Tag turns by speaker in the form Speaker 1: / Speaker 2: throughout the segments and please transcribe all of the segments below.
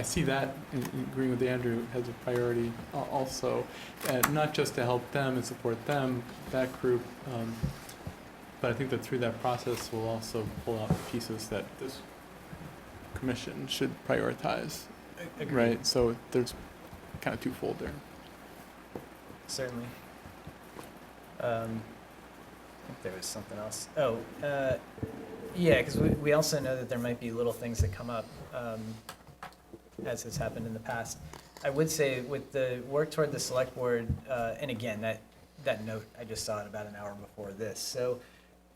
Speaker 1: I see that, in- in agreeing with Andrew, as a priority al- also, and not just to help them and support them, that group, um, but I think that through that process, we'll also pull out the pieces that this commission should prioritize, right? So there's kind of twofold there.
Speaker 2: Certainly. Um, I think there was something else. Oh, uh, yeah, because we, we also know that there might be little things that come up, um, as has happened in the past. I would say with the work toward the select board, uh, and again, that, that note, I just saw it about an hour before this. So,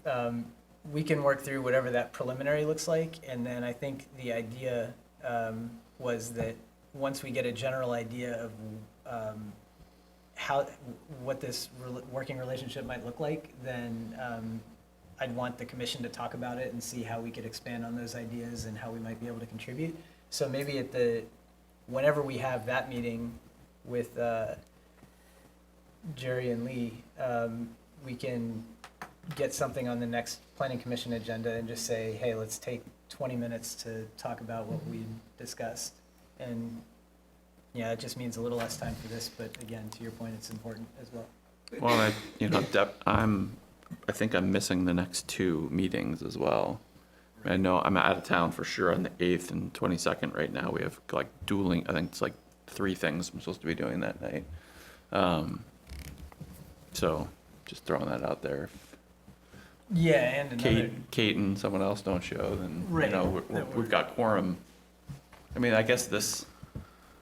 Speaker 2: um, we can work through whatever that preliminary looks like, and then I think the idea, um, was that once we get a general idea of, um, how, what this rel- working relationship might look like, then um, I'd want the commission to talk about it and see how we could expand on those ideas and how we might be able to contribute. So maybe at the, whenever we have that meeting with uh, Jerry and Lee, um, we can get something on the next planning commission agenda and just say, hey, let's take twenty minutes to talk about what we discussed. And yeah, it just means a little less time for this, but again, to your point, it's important as well.
Speaker 3: Well, I, you know, dep- I'm, I think I'm missing the next two meetings as well. I know I'm out of town for sure on the eighth and twenty-second right now. We have like dueling, I think it's like three things I'm supposed to be doing that night. Um, So, just throwing that out there.
Speaker 2: Yeah, and another,
Speaker 3: Kate, Kate and someone else don't show, then, you
Speaker 2: Right,
Speaker 3: know, we're- we're-
Speaker 2: that
Speaker 3: we've got quorum. I mean, I guess this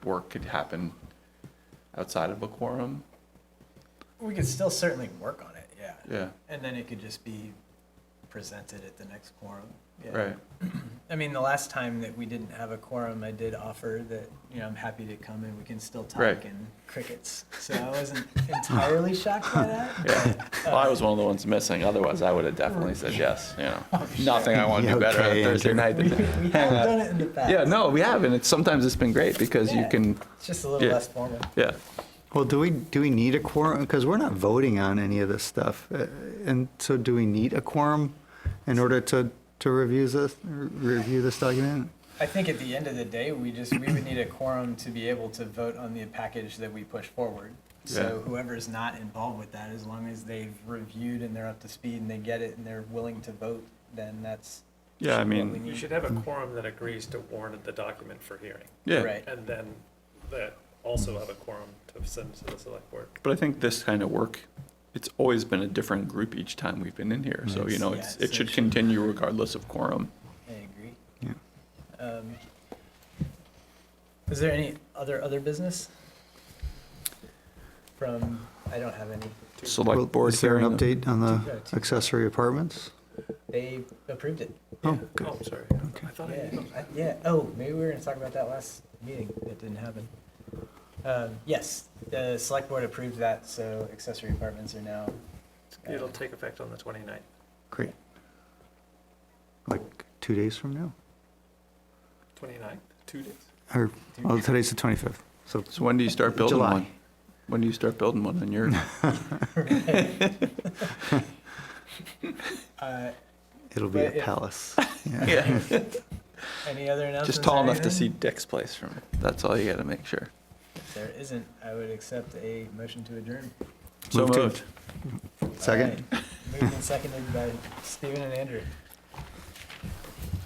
Speaker 3: work could happen outside of a quorum,
Speaker 2: we could still certainly work on it, yeah.
Speaker 3: yeah,
Speaker 2: And then it could just be presented at the next quorum. yeah.
Speaker 3: right.
Speaker 2: I mean, the last time that we didn't have a quorum, I did offer that, you know, I'm happy to come and we can still talk
Speaker 3: Right.
Speaker 2: and crickets. So I wasn't entirely shocked by that.
Speaker 3: Yeah. Well, I was one of the ones missing. Otherwise, I would have definitely said yes. You know,
Speaker 2: Oh,
Speaker 3: nothing I want to do better on a
Speaker 4: Okay,
Speaker 3: Thursday night.
Speaker 2: We, we
Speaker 3: Than
Speaker 2: have
Speaker 3: hang out.
Speaker 2: done it in the past.
Speaker 3: Yeah, no, we have, and it's sometimes it's been great because you
Speaker 2: Yeah.
Speaker 3: can.
Speaker 2: It's just a little
Speaker 3: Yeah.
Speaker 2: less formal.
Speaker 3: Yeah,
Speaker 4: Well, do we, do we need a quorum? Because we're not voting on any of this stuff. Uh, And so do we need a quorum in order to, to review this, review this document?
Speaker 2: I think at the end of the day, we just, we would need a quorum to be able to vote on the package that we push forward. So
Speaker 3: Yeah.
Speaker 2: whoever's not involved with that, as long as they've reviewed and they're up to speed and they get it and they're willing to vote, then that's.
Speaker 3: yeah. I
Speaker 2: what we
Speaker 3: mean,
Speaker 5: You
Speaker 2: need.
Speaker 5: should have a quorum that agrees to warn the document for hearing,
Speaker 3: yeah.
Speaker 2: Right.
Speaker 5: and then that also have a quorum to send to the select board.
Speaker 3: But I think this kind of work, it's always been a different group each time we've been in here. So you know,
Speaker 2: Yeah,
Speaker 3: it's,
Speaker 2: it's
Speaker 3: it should
Speaker 2: actually-
Speaker 3: continue regardless of quorum.
Speaker 2: I agree.
Speaker 4: Yeah.
Speaker 2: Um, Is there any other, other business? From, I don't have any.
Speaker 4: Well,
Speaker 3: Select board
Speaker 4: Is there an
Speaker 3: hearing.
Speaker 4: update on
Speaker 2: Yeah,
Speaker 4: the
Speaker 2: two-
Speaker 4: accessory apartments?
Speaker 2: They approved it.
Speaker 4: Oh,
Speaker 5: Yeah.
Speaker 4: good.
Speaker 5: Oh, sorry. I thought I
Speaker 2: Yeah,
Speaker 5: emailed.
Speaker 2: I- yeah, oh, maybe we were gonna talk about that last meeting, that didn't happen. Um, yes, the select board approved that, so accessory apartments are now,
Speaker 5: It'll take effect on the 29th.
Speaker 4: Great. Like two days from now?
Speaker 5: 29th? Two days?
Speaker 4: Or, well, today's the 25th, so
Speaker 3: So when do you start building
Speaker 4: July.
Speaker 3: one? When do you start building one on your?
Speaker 2: uh,
Speaker 4: it'll be a
Speaker 2: But, yeah.
Speaker 4: palace.
Speaker 3: yeah.
Speaker 2: any other announcements?
Speaker 3: Just tall
Speaker 2: or
Speaker 3: enough to see
Speaker 2: anything?
Speaker 3: Dick's place from. it. That's all you got to make sure.
Speaker 2: If there isn't, I would accept a motion to adjourn.
Speaker 3: So
Speaker 4: Move to-
Speaker 3: moved.
Speaker 4: Second?
Speaker 2: All right, Moved and seconded by Stephen and Andrew.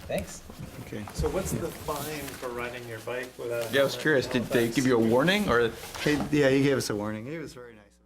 Speaker 2: Thanks.
Speaker 4: Okay.
Speaker 5: So what's the fine for riding your bike without? a
Speaker 3: Yeah, I was
Speaker 5: helmet in
Speaker 3: curious. Did they
Speaker 5: Halifax?
Speaker 3: give you a warning or?
Speaker 4: Hey, Yeah, he gave us a warning. He was very nice.